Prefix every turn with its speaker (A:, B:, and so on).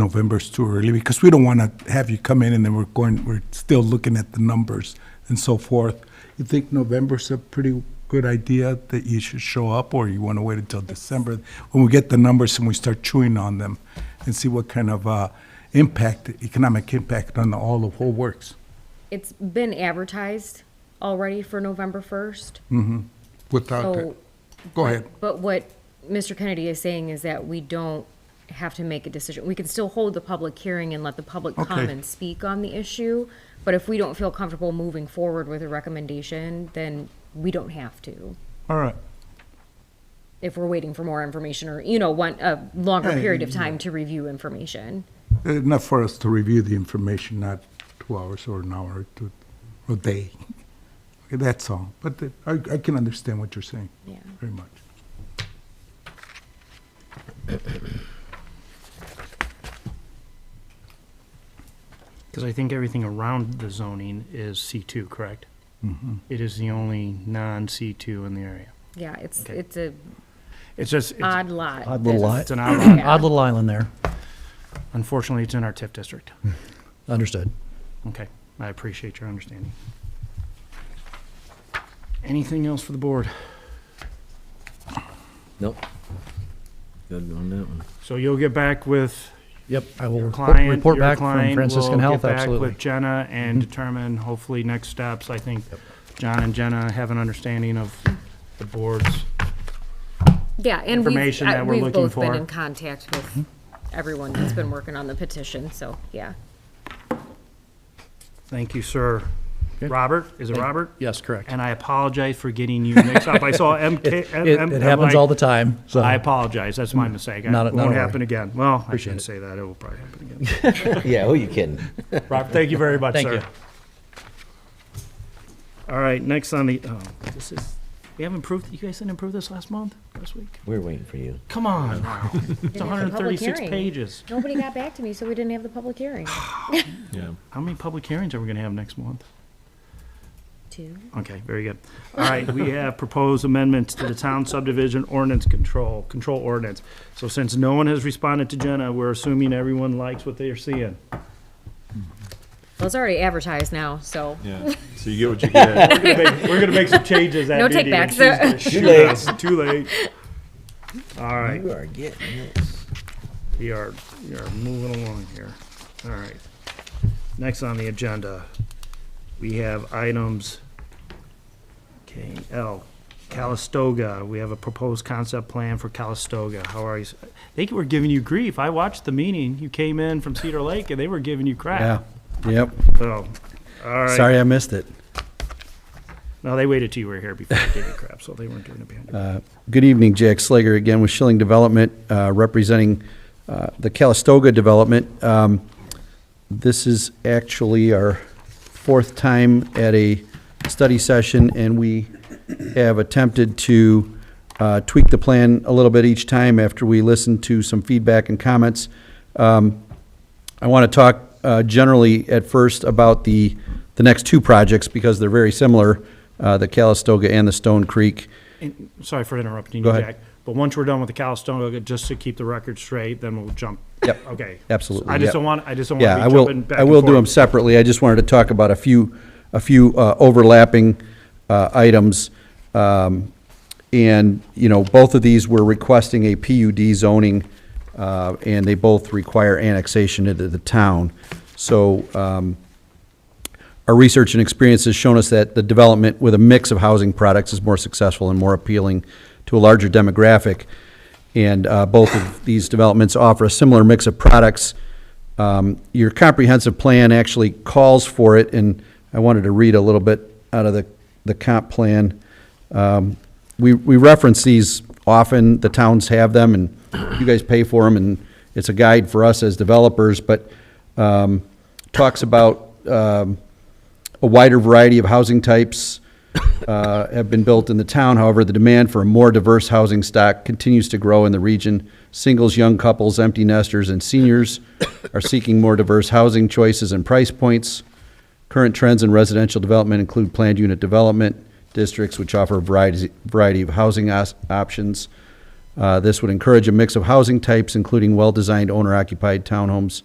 A: November's too early, because we don't want to have you come in and then we're going, we're still looking at the numbers and so forth. You think November's a pretty good idea that you should show up, or you want to wait until December? When we get the numbers and we start chewing on them and see what kind of uh, impact, economic impact on the- all the whole works.
B: It's been advertised already for November 1st.
A: Without that,
B: So,
A: go ahead.
B: but what Mr. Kennedy is saying is that we don't have to make a decision. We can still hold the public hearing and let the public
A: Okay.
B: come and speak on the issue. But if we don't feel comfortable moving forward with a recommendation, then we don't have to.
A: All right.
B: If we're waiting for more information or, you know, want a longer
A: Yeah,
B: period of time to review information.
A: Enough for us to review the information, not two hours or an hour or two, or a day. Okay, That's all, but the- I, I can understand what you're saying.
B: Yeah.
A: Very much.
C: Because I think everything around the zoning is C2, correct? It is the only non-C2 in the area.
B: Yeah, it's,
C: Okay.
B: it's a
C: It's just, it's-
B: odd lot.
D: Odd
B: that's-
D: little lot.
C: it's an outlier.
B: Yeah.
D: Odd little island there.
C: Unfortunately, it's in our TIF district.
D: Understood.
C: Okay, I appreciate your understanding. Anything else for the board?
E: Nope. Good on that one.
C: So you'll get back with
D: Yep, I will
C: your
D: report
C: client,
D: report
C: your
D: back from
C: client will
D: Franciscan
C: get
D: Health,
C: back with
D: absolutely.
C: Jenna and determine hopefully next steps. I think John and Jenna have an understanding of the board's
B: Yeah, and we've,
C: information
B: I-
C: that we're
B: we've
C: looking
B: both been
C: for.
B: in contact with everyone that's been working on the petition, so, yeah.
C: Thank you, sir. Robert, is it Robert?
D: Yes, correct.
C: And I apologize for getting you mixed up. I saw MK.
D: It, it happens all the time, so.
C: I apologize. That's my mistake.
D: Not a-
C: It
D: not a
C: won't
D: worry.
C: happen again. Well, I
D: Appreciate
C: shouldn't
D: it.
C: say that. It will probably happen again.
E: Yeah, who you kidding?
C: Robert, thank you very much,
D: Thank
C: sir.
D: you.
C: All right, next on the, oh, this is, we haven't approved, you guys didn't approve this last month, last week?
E: We're waiting for you.
C: Come on. now. It's
B: a public
C: 136
B: hearing.
C: pages.
B: Nobody got back to me, so we didn't have the public hearing.
C: How many public hearings are we going to have next month?
B: Two.
C: Okay, very good. All right, we have proposed amendments to the town subdivision ordinance control, control ordinance. So since no one has responded to Jenna, we're assuming everyone likes what they are seeing.
B: Well, it's already advertised now, so,
F: Yeah, so you get what you get.
C: We're gonna make- We're gonna make some changes at
B: No
C: meeting. and
B: takebacks.
C: she's gonna shoot
E: late.
C: us. Too late. All right,
E: You are getting it.
C: we are, we are moving along here. All right. Next on the agenda, we have items, okay, L, Calistoga. We have a proposed concept plan for Calistoga. How are you? s- They were giving you grief. I watched the meeting. You came in from Cedar Lake and they were giving you
G: Yeah,
C: crap.
G: yep.
C: So, all right.
G: Sorry I missed it.
C: No, they waited till you were here before they gave you crap, so they weren't doing it behind your back.
G: Good evening, Jack Slager again with Schilling Development, uh, representing uh, the Calistoga Development. Um, This is actually our fourth time at a study session, and we have attempted to uh, tweak the plan a little bit each time after we listened to some feedback and comments. Um, I want to talk uh, generally at first about the, the next two projects because they're very similar, uh, the Calistoga and the Stone Creek.
C: And- Sorry for interrupting
G: Go
C: you,
G: ahead.
C: Jack. But once we're done with the Calistoga, just to keep the record straight, then we'll jump.
G: Yep.
C: Okay.
G: Absolutely,
C: I just
G: yep.
C: don't want, I just don't
G: Yeah,
C: want
G: I
C: to be
G: will,
C: jumping back
G: I
C: and
G: will do them
C: forth.
G: separately. I just wanted to talk about a few, a few uh, overlapping uh, items. Um, And, you know, both of these were requesting a PUD zoning, uh, and they both require annexation into the town. So um, our research and experience has shown us that the development with a mix of housing products is more successful and more appealing to a larger demographic. And uh, both of these developments offer a similar mix of products. Um, Your comprehensive plan actually calls for it, and I wanted to read a little bit out of the, the comp plan. Um, We, we reference these often, the towns have them, and you guys pay for them, and it's a guide for us as developers, but um, talks about um, a wider variety of housing types uh, have been built in the town. However, the demand for a more diverse housing stock continues to grow in the region. Singles, young couples, empty nesters, and seniors are seeking more diverse housing choices and price points. Current trends in residential development include planned unit development districts, which offer a variety, variety of housing os- options. Uh, This would encourage a mix of housing types, including well-designed owner-occupied townhomes,